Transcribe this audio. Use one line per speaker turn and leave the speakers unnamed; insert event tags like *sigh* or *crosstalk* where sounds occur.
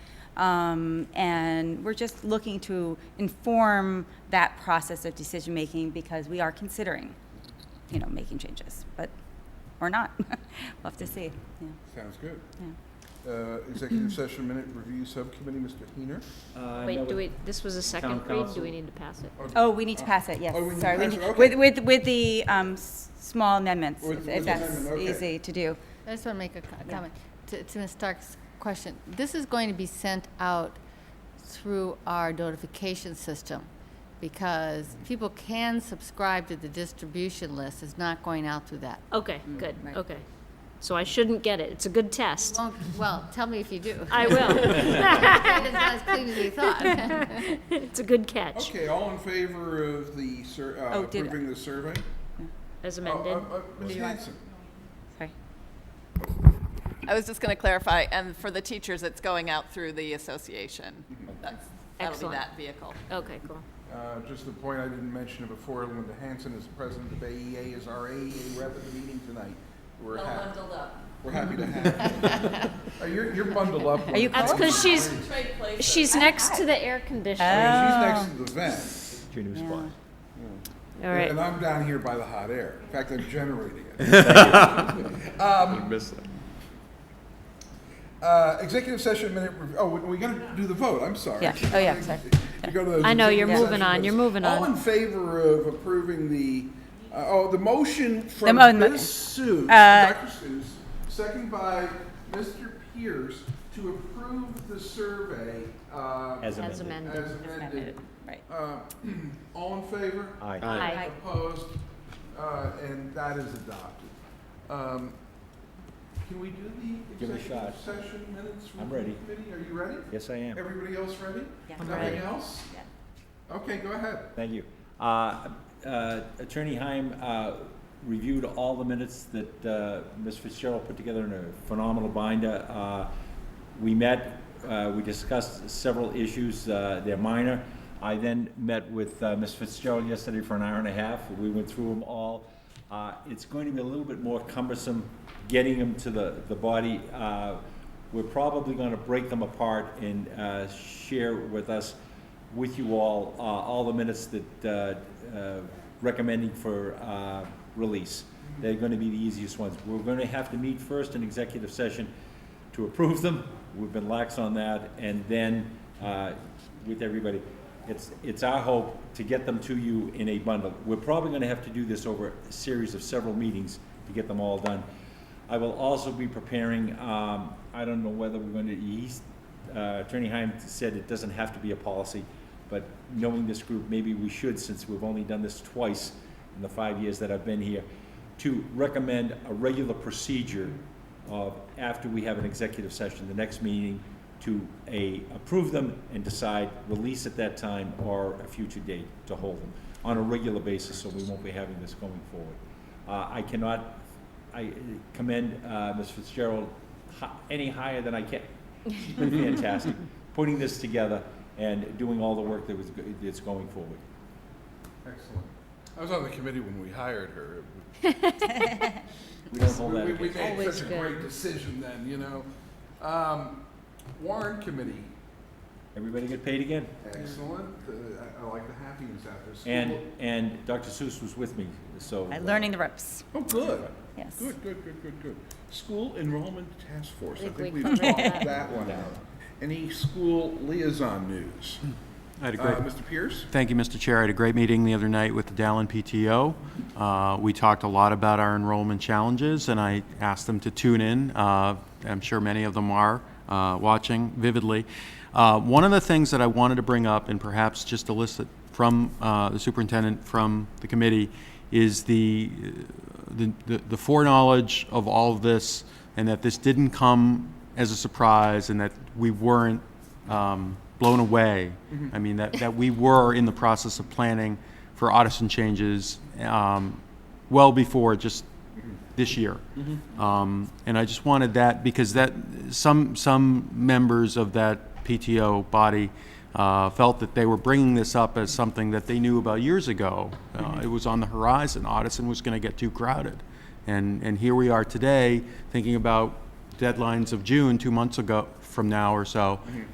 Um, and we're just looking to inform that process of decision making because we are considering, you know, making changes, but or not. *laughs* we'll have to see. Yeah.
Sounds good.
yeah.
Uh, Executive *clears throat* session minute review subcommittee, Mr. Heener?
Uh, no,
Wait, do
but-
we, this was a second read, do
council.
we need to pass it?
Oh, we need to pass it. Yes.
Oh, we need to
Sorry.
pass it, okay.
With with with the um, s- small amendments,
With-
if,
with
if that's
amendment, okay.
easy to do.
I just want to make a co-
Yeah.
comment to, to Ms. Stark's question. This is going to be sent out through our notification system because people can subscribe to the distribution list. It's not going out through that.
Okay, good,
right.
okay. So I shouldn't get it, it's a
*laughs*
good test.
Won't- Well, tell me if you do.
I
*laughs*
will,
It's not as clean as we thought.
*laughs* it's a good catch,
Okay, all in favor of the, sur- uh,
Oh, did-
approving the survey?
as
Oh,
amended.
uh, uh, Ms. Hanson?
Sorry.
I was just going to clarify, and for the teachers, it's going out through the association. That's, that'll
Excellent.
be that vehicle.
oh.
Okay, cool.
Uh, Just the point I didn't mention it before, Linda Hanson is the president of AEA, is our AEA rep at the meeting tonight. We're happy,
up.
we're happy to have you. Uh, You're, you're bundled up.
you
with-
That's because she's, she's next to the air
I
conditioner.
mean, She's
Oh.
next to the vent,
Your new spot.
All right,
and I'm down here by the hot air. In fact, I'm generating it. Um, Uh, Executive session minute, rev- oh, we- we gotta do the vote, I'm sorry.
Yeah. Oh, yeah. Sorry.
You go to those
I know, you're
executive
moving
session
on, you're
minutes.
moving
All
on.
in favor of approving the, uh, oh, the motion from
oh,
mo- mo-
Ms. Seuss,
uh,
Dr. Seuss, second by Mr. Pierce, to approve the survey uh, as
As
as
amended.
amended.
amended.
Right.
Uh, *clears throat* All in favor?
Aye.
Aye.
Opposed, Uh, and that is adopted. Um, Can we do the
Give it a
executive
shot.
session minutes?
I'm
review
ready.
Committee, are you ready?
Yes, I am.
Everybody else ready?
Yeah. I'm
Nothing
ready.
else?
Yeah.
Okay, go ahead.
Thank you. Uh, uh, Attorney Heim uh, reviewed all the minutes that uh, Ms. Fitzgerald put together in a phenomenal binder. Uh, We met, uh, we discussed several issues, uh, they're minor. I then met with uh, Ms. Fitzgerald yesterday for an hour and a half. We went through them all. Uh, It's going to be a little bit more cumbersome getting them to the the body. Uh, We're probably going to break them apart and uh, share with us with you all, uh, all the minutes that, uh, uh, recommending for, uh, release. They're gonna be the easiest ones. We're gonna have to meet first in executive session to approve them. We've been lax on that, and then, uh, with everybody. It's, it's our hope to get them to you in a bundle. We're probably gonna have to do this over a series of several meetings to get them all done. I will also be preparing, um, I don't know whether we're going to, he's, uh, Attorney Heim said it doesn't have to be a policy, but knowing this group, maybe we should, since we've only done this twice in the five years that I've been here, to recommend a regular procedure of, after we have an executive session, the next meeting, to a, approve them and decide release at that time or a future date to hold them on a regular basis, so we won't be having this going forward. Uh, I cannot, I commend, uh, Ms. Fitzgerald hi- any higher than I can. She's
*laughs*
been fantastic, putting this together and doing all the work that was, go- that's going forward.
Excellent. I was on the committee when we hired her.
We don't hold that
We- We
against. her.
made
Always
such a
good.
great decision then, you know? Um, Warren Committee,
Everybody get paid again?
excellent. Uh, I- I like the happiness out there. School-
And, and Dr. Seuss was with me, so.
Uh,
uh,
learning the ropes.
Oh, good.
Yes.
Good, good, good, good, good. School Enrollment Task Force, I
Think
think
we
we've
covered
talked
that.
that one out. Any school liaison news?
I had a
Uh,
great,
Mr. Pierce?
thank you, Mr. Chair. I had a great meeting the other night with the Dallin PTO. Uh, We talked a lot about our enrollment challenges, and I asked them to tune in. Uh, I'm sure many of them are uh, watching vividly. Uh, One of the things that I wanted to bring up, and perhaps just elicit from uh, the superintendent, from the committee, is the, the- the the foreknowledge of all of this, and that this didn't come as a surprise, and that we weren't um, blown away. I mean, that, that we were in the process of planning for Audison changes um, well before just this year. Um, And I just wanted that, because that, some, some members of that PTO body uh, felt that they were bringing this up as something that they knew about years ago. Uh, It was on the horizon, Audison was going to get too crowded. And, and here we are today, thinking about deadlines of June, two months ago from now or so,